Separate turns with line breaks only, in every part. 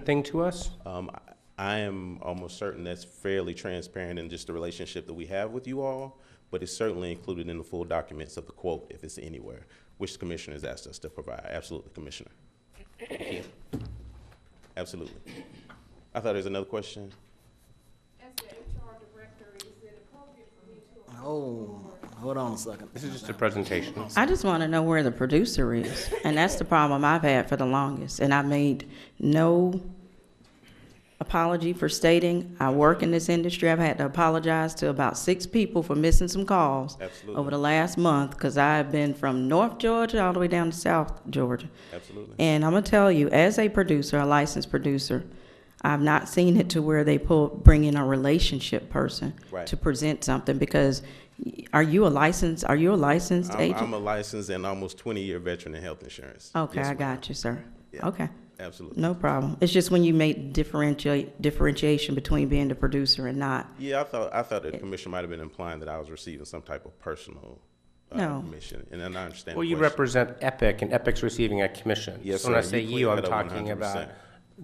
thing to us?
Um, I- I am almost certain that's fairly transparent in just the relationship that we have with you all, but it's certainly included in the full documents of the quote, if it's anywhere, which the commissioner has asked us to provide. Absolutely, Commissioner. Absolutely. I thought there was another question.
As the HR director, is it appropriate for me to
Oh, hold on a second.
This is just a presentation.
I just want to know where the producer is, and that's the problem I've had for the longest, and I made no apology for stating I work in this industry. I've had to apologize to about six people for missing some calls
Absolutely.
over the last month, because I've been from North Georgia all the way down to South Georgia.
Absolutely.
And I'm gonna tell you, as a producer, a licensed producer, I've not seen it to where they pull, bring in a relationship person
Right.
to present something, because y- are you a licensed, are you a licensed
I'm, I'm
agent?
a licensed and almost twenty-year veteran in health insurance.
Okay,
Yes,
I
ma'am.
got you, sir.
Yeah.
Okay,
Absolutely.
no problem. It's just when you make differentiate, differentiation between being the producer and not.
Yeah, I thought, I thought the commissioner might have been implying that I was receiving some type of personal uh,
No.
commission, and then I understand.
Well,
the
you
question.
represent Epic, and Epic's receiving a commission.
Yes,
So when I
sir.
say
You
you, I'm
cleared that up
talking about
100%.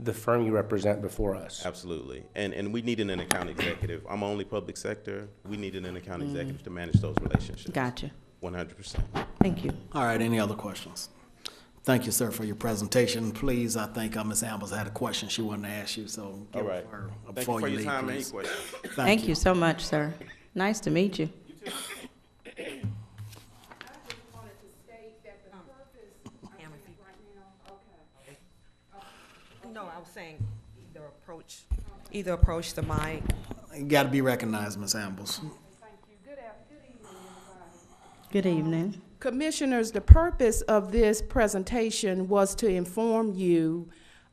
the firm you represent before us.
Absolutely. And, and we needed an account executive. I'm only public sector. We needed an account executive to manage those relationships.
Gotcha.
One hundred percent.
Thank you.
All right, any other questions? Thank you, sir, for your presentation. Please, I think uh, Ms. Ambles had a question she wanted to ask you, so
All
give
right.
her
Thank you
before
for
you
your
leave,
time and any
please.
questions.
Thank you so much, sir. Nice to meet you.
I just wanted to state that
Oh.
the purpose, I
Pam, if
think right now, okay.
No, I was saying either approach, either approach the mic.
You gotta be recognized, Ms. Ambles.
Thank you. Good af, good evening, everybody.
Good evening.
Commissioners, the purpose of this presentation was to inform you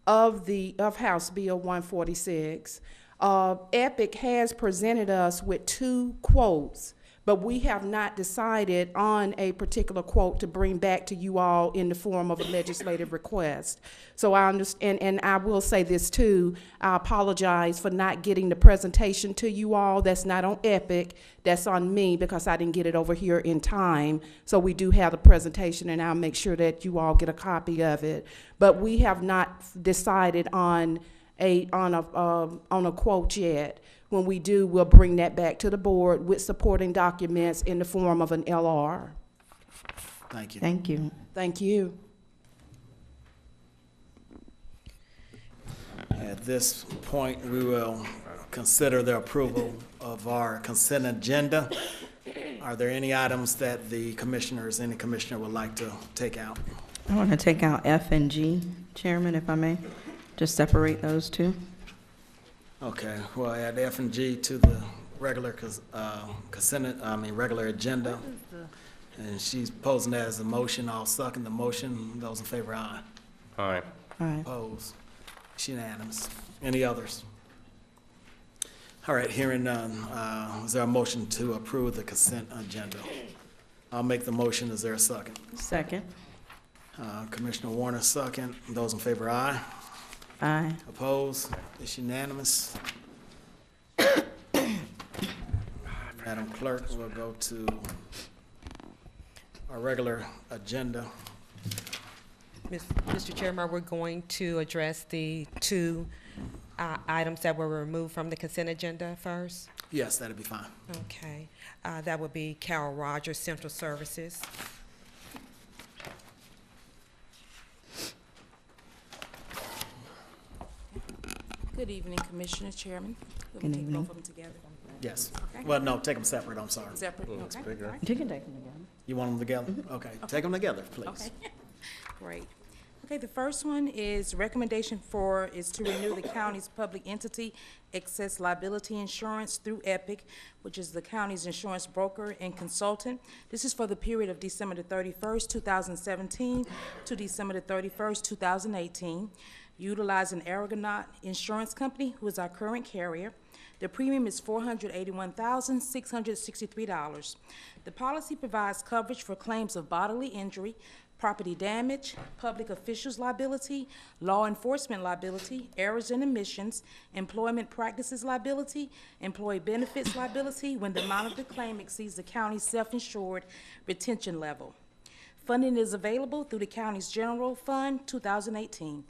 of the, of House Bill 146. Uh, Epic has presented us with two quotes, but we have not decided on a particular quote to bring back to you all in the form of a legislative request. So I understand, and I will say this too, I apologize for not getting the presentation to you all. That's not on Epic, that's on me because I didn't get it over here in time. So we do have the presentation and I'll make sure that you all get a copy of it. But we have not decided on a, on a, um, on a quote yet. When we do, we'll bring that back to the board with supporting documents in the form of an LR.
Thank you.
Thank you.
Thank you.
At this point, we will consider the approval of our consent agenda. Are there any items that the commissioners, any commissioner would like to take out?
I want to take out F and G, Chairman, if I may, just separate those two.
Okay, well, add F and G to the regular cons- uh, consent, I mean, regular agenda. And she's posing that as a motion, I'll second the motion. Those in favor, aye.
All right.
All right.
Opposed? It's unanimous. Any others? All right, hearing none, uh, is there a motion to approve the consent agenda? I'll make the motion, is there a second?
Second.
Uh, Commissioner Warner, second. Those in favor, aye.
Aye.
Opposed? It's unanimous. Madam Clerk, we'll go to our regular agenda.
Mis- Mr. Chairman, we're going to address the two uh, items that were removed from the consent agenda first.
Yes, that'd be fine.
Oh.
Okay, Uh, that would be Carol Rogers, Central Services.
Good evening, Commissioner Chairman. Let
Good
me take
evening.
both of them together.
Yes.
Okay.
Well, no, take them separate, I'm sorry.
Separate, okay? all right, Mm-hmm.
You can take them again.
You want them together? Okay, take them together, please.
Okay, great. Okay, the first one is recommendation for, is to renew the county's public entity excess liability insurance through Epic, which is the county's insurance broker and consultant. This is for the period of December the thirty-first, two thousand seventeen to December the thirty-first, two thousand eighteen, utilizing Aragonaut Insurance Company, who is our current carrier. The premium is four hundred eighty-one thousand, six hundred sixty-three dollars. The policy provides coverage for claims of bodily injury, property damage, public officials liability, law enforcement liability, errors and omissions, employment practices liability, employee benefits liability when the amount of the claim exceeds the county's self-insured retention level. Funding is available through the county's general fund, two thousand eighteen.